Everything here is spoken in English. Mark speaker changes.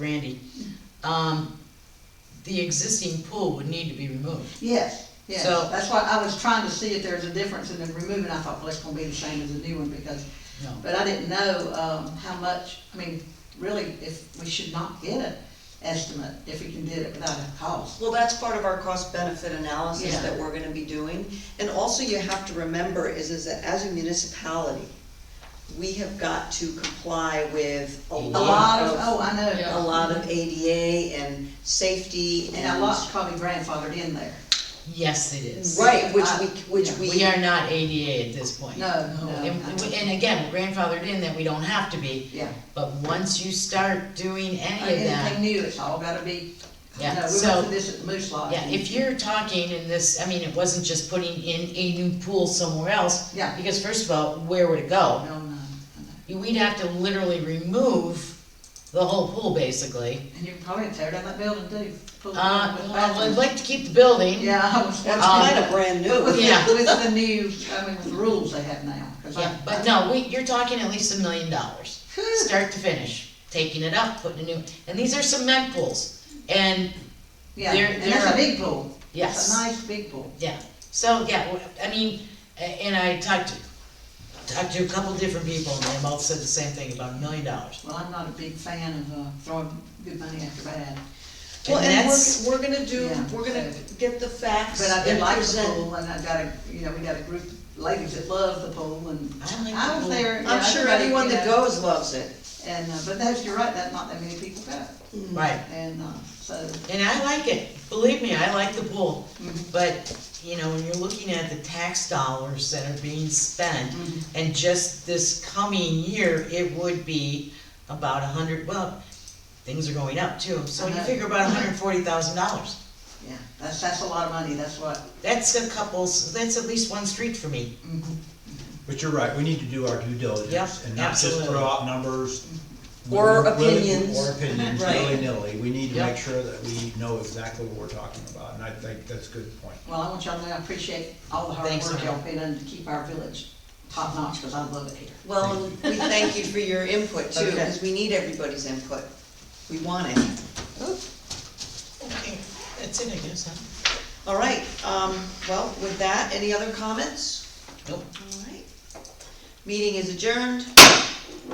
Speaker 1: Randy, um, the existing pool would need to be removed.
Speaker 2: Yes, yes,
Speaker 1: So-
Speaker 2: that's why I was trying to see if there's a difference in the removing, I thought, well, it's gonna be the same as the new one, because,
Speaker 1: No,
Speaker 2: but I didn't know, um, how much, I mean, really, if, we should not get an estimate if we can do it without a cost.
Speaker 3: Well, that's part of our cost benefit analysis
Speaker 2: Yeah.
Speaker 3: that we're gonna be doing. And also you have to remember is, is that as a municipality, we have got to comply with a
Speaker 1: A
Speaker 2: A lot
Speaker 3: lot
Speaker 2: of, oh,
Speaker 3: of,
Speaker 2: I know,
Speaker 3: a lot of ADA and safety and.
Speaker 2: and a lot's probably grandfathered in there,
Speaker 1: yes, it is.
Speaker 3: Right, which we, which
Speaker 2: Yeah.
Speaker 3: we.
Speaker 1: We are not ADA at this point.
Speaker 2: No, no,
Speaker 1: And,
Speaker 2: no.
Speaker 1: and again, grandfathered in that we don't have to be,
Speaker 2: yeah.
Speaker 1: but once you start doing any of that,
Speaker 2: Anything new, it's all gotta be, no, we
Speaker 1: yeah,
Speaker 2: went
Speaker 1: so.
Speaker 2: through this at the Moose Lodge.
Speaker 1: Yeah, if you're talking in this, I mean, it wasn't just putting in a new pool somewhere else,
Speaker 2: Yeah,
Speaker 1: because first of all, where would it go?
Speaker 2: no, no, no,
Speaker 1: We'd have to literally remove the whole pool, basically.
Speaker 2: and you can probably tear down that building too. Pull it down
Speaker 1: Uh,
Speaker 2: with
Speaker 1: well, I'd
Speaker 2: bathrooms.
Speaker 1: like to keep the building.
Speaker 2: Yeah, I was.
Speaker 3: That's
Speaker 1: Um,
Speaker 3: kinda brand
Speaker 2: With,
Speaker 3: new.
Speaker 1: Yeah.
Speaker 2: the- with the new, I mean, with the rules they have now. 'cause I-
Speaker 1: Yeah, but no, we, you're talking at least a million dollars, start to finish, taking it up, putting a new, and these are cement pools. And,
Speaker 2: Yeah,
Speaker 1: There-
Speaker 2: and
Speaker 1: there
Speaker 2: that's
Speaker 1: are-
Speaker 2: a big pool. It's a
Speaker 1: yes,
Speaker 2: nice big pool.
Speaker 1: yeah, so, yeah, w- I mean, a- and I talked to, talked to a couple different people, and they both said the same thing about a million dollars.
Speaker 2: Well, I'm not a big fan of uh, throwing good money after bad,
Speaker 3: Well,
Speaker 1: And
Speaker 3: and
Speaker 1: that's,
Speaker 3: we're, we're gonna do,
Speaker 2: Yeah.
Speaker 3: we're gonna get the facts
Speaker 2: but I did
Speaker 3: and
Speaker 2: like the
Speaker 3: present.
Speaker 2: pool, and I got a, you know, we got a group of ladies that love the pool, and
Speaker 1: I like
Speaker 2: I was
Speaker 1: the
Speaker 2: there.
Speaker 3: I'm sure everyone that goes loves it.
Speaker 2: goes. And, uh, but that's, you're right, that not that many people go,
Speaker 3: Hmm.
Speaker 1: pool. Right,
Speaker 2: and uh, so,
Speaker 1: and I like it, believe me, I like the pool,
Speaker 2: mhm,
Speaker 1: but, you know, when you're looking at the tax dollars that are being spent,
Speaker 2: mhm.
Speaker 1: And just this coming year, it would be about a hundred, well, things are going up too, so you figure about hundred and forty thousand dollars.
Speaker 2: yeah, that's, that's a lot of money, that's what.
Speaker 1: That's a couple, that's at least one street for me.
Speaker 2: mhm.
Speaker 4: But you're right, we need to do our due diligence
Speaker 1: Yep,
Speaker 4: and not just
Speaker 1: absolutely.
Speaker 4: throw out numbers.
Speaker 3: Or
Speaker 4: willy-
Speaker 3: opinions.
Speaker 4: Or opinions,
Speaker 1: Right.
Speaker 4: willy-nilly. We need to
Speaker 1: Yep.
Speaker 4: make sure that we know exactly what we're talking about, and I think that's a good point.
Speaker 2: Well, I want y'all to know I appreciate all the hard
Speaker 1: Thanks,
Speaker 2: work
Speaker 1: ma'am.
Speaker 2: y'all put in to keep our village top notch, because I love it here.
Speaker 3: Well, and we thank you for your input too,
Speaker 1: Okay.
Speaker 3: because we need everybody's input. We want it.
Speaker 1: Okay, that's it, I guess, huh?
Speaker 3: All right, um, well, with that, any other comments?
Speaker 1: Nope.
Speaker 3: All right. Meeting is adjourned.